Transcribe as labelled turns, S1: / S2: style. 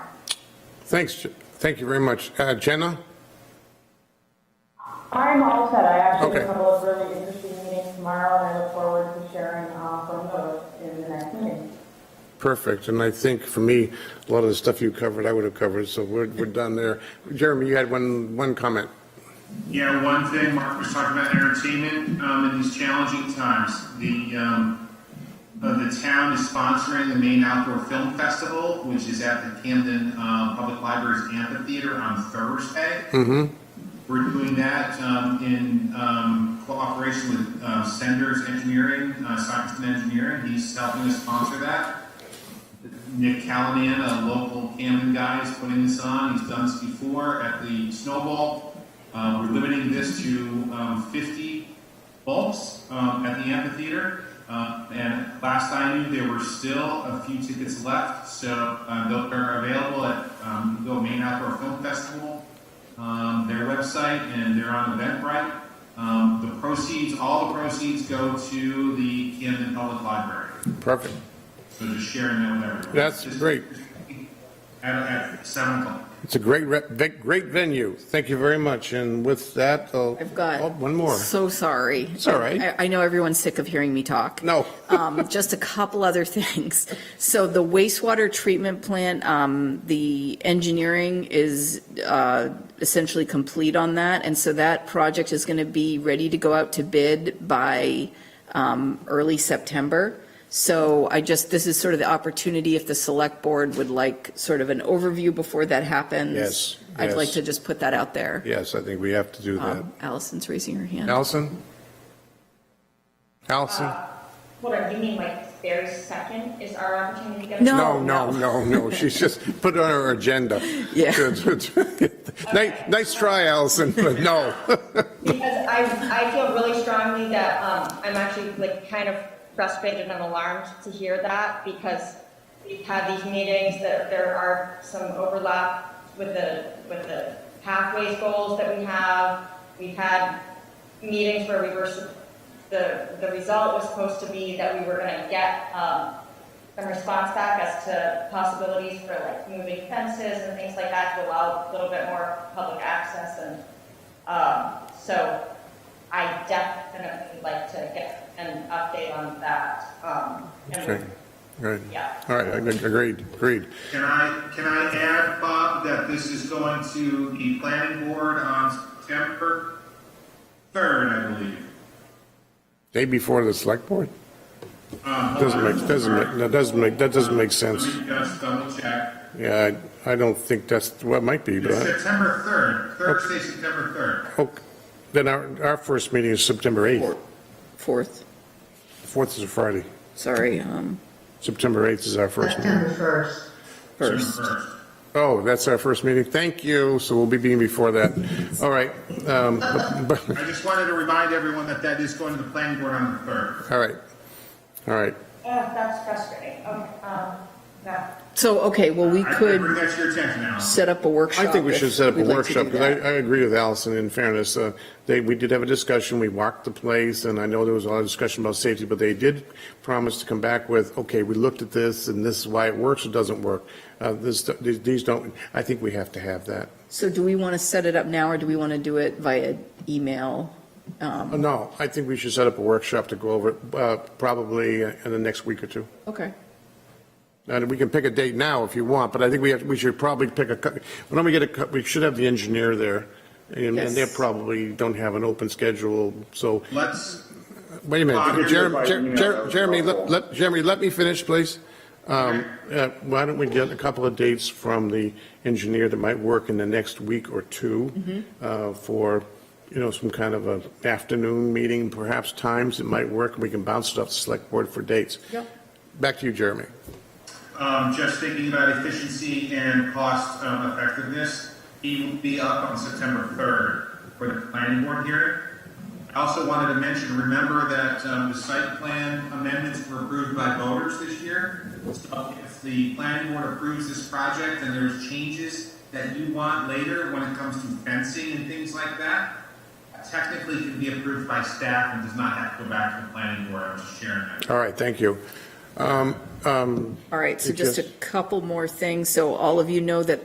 S1: Thanks, Je- thank you very much. Uh, Jenna?
S2: I'm all set. I actually have
S1: Okay.
S2: a couple of really interesting meetings tomorrow, and I look forward to sharing uh, from those in the next meeting.
S1: Perfect, and I think for me, a lot of the stuff you covered, I would have covered, so we're, we're done there. Jeremy, you had one, one comment.
S3: Yeah, one thing Mark was talking about entertainment um, in these challenging times. The um, uh, the town is sponsoring the Maine Outdoor Film Festival, which is at the Camden um, Public Library's amphitheater on Thursday. We're doing that um, in um, cooperation with uh, Senders Engineering, uh, Sockiston Engineering. He's helping us sponsor that. Nick Callahan, a local Camden guy, is putting this on. He's done this before at the Snowball. Uh, we're limiting this to um, 50 bulbs um, at the amphitheater. Uh, and last I knew, there were still a few tickets left, so uh, they'll- they're available at um, the Maine Outdoor Film Festival, um, their website, and they're on Eventbrite. Um, the proceeds, all the proceeds, go to the Camden Public Library.
S1: Perfect.
S3: So just sharing that with everyone.
S1: That's
S3: Just-
S1: great.
S3: At, at seven o'clock.
S1: It's a great, rep- ve- great venue. Thank you very much, and with that, I'll.
S4: I've got.
S1: Oh, One more.
S4: So sorry.
S1: It's all right.
S4: I, I know everyone's sick of hearing me talk.
S1: No.
S4: Um, just a couple other things. So the wastewater treatment plant, um, the engineering is, uh, essentially complete on that. And so that project is going to be ready to go out to bid by, um, early September. So I just, this is sort of the opportunity if the select board would like sort of an overview before that happens.
S1: Yes,
S4: I'd like
S1: yes.
S4: to just put that out there.
S1: Yes, I think we have to do that.
S4: Um, Allison's raising her hand.
S1: Allison? Allison?
S4: Uh,
S2: What are you mean, like, there's second is our opportunity to get?
S4: No.
S1: No, no, no, no, she's just put it on her agenda.
S4: Yeah.
S1: Nice, nice try, Allison, but no.
S2: Because I, I feel really strongly that, um, I'm actually like kind of frustrated and alarmed to hear that because we've had these meetings that there are some overlap with the, with the pathways goals that we have. We've had meetings where we were, sup- the, the result was supposed to be that we were gonna get, um, some response back as to possibilities for like moving fences and things like that to allow a little bit more public access and um, so I definitely would like to get an update on that. Um, and-
S1: Okay, right.
S2: Yeah.
S1: All right, ag- agreed, agreed.
S3: Can I, can I add, Bob, that this is going to the planning board on September third, I believe?
S1: Day before the select board?
S3: Um, hold
S1: Doesn't
S3: on.
S1: make, doesn't make, that doesn't make, that doesn't make sense.
S3: Let me just double check.
S1: Yeah, I I don't think that's, well, it might be,
S3: It's
S1: but,
S3: September third, Thursday, September third.
S1: oh, then our, our first meeting is September 8th.
S4: Four- Fourth,
S1: 4th is a Friday.
S4: sorry, um,
S1: September 8th is our first meeting.
S5: September 1st.
S4: first.
S1: Oh, that's our first meeting. Thank you. So we'll be meeting before that. All right. um, but- but-
S3: I just wanted to remind everyone that that is going to the planning board on the third.
S1: All right. All right.
S2: Ugh, Oh, that's frustrating. Okay, um, no.
S4: So, okay, well, we
S3: I
S4: could
S3: Bring that to your attention, Alan.
S4: set up a workshop.
S1: I think we
S4: if
S1: should set up a
S4: we'd like to do
S1: workshop because I,
S4: that.
S1: I agree with Allison in fairness. uh, They, we did have a discussion. We walked the place and I know there was a lot of discussion about safety, but they did promise to come back with, okay, we looked at this and this is why it works or doesn't work. Uh, This, these don't, I think we have to have that.
S4: So do we want to set it up now or do we want to do it via email?
S1: Uh, No, I think we should set up a workshop to go over it, uh, probably in the next week or two.
S4: Okay.
S1: And we can pick a date now if you want, but I think we have, we should probably pick a, cou- why don't we get a, cou- we should have the engineer there. And and they
S4: Yes.
S1: probably don't have an open schedule, so,
S3: Let's,
S1: wait a
S3: Bob,
S1: minute.
S3: you're
S1: Jer-
S6: invited, you know,
S1: Jer-
S6: that
S1: Jer-
S6: was
S1: Jeremy, let,
S6: helpful.
S1: let- Jeremy, let me finish, please. Um, uh, Why don't we get a couple of dates from the engineer that might work in the next week or two uh, for, you know, some kind of a afternoon meeting, perhaps times it might work, and we can bounce it off the select board for dates.
S4: Yep.
S1: Back to you, Jeremy.
S3: um, just thinking about efficiency and cost um, effectiveness, he will be up on September 3rd for the planning board hearing. I also wanted to mention, remember that um, the site plan amendments were approved by voters this year. So if the planning board approves this project and there's changes that you want later when it comes to fencing and things like that, technically can be approved by staff and does not have to go back to the planning board. I'm just sharing that.
S1: All right, thank you. Um, um,
S4: All right, so
S1: It
S4: just a
S1: just-
S4: couple more things. So all of you know that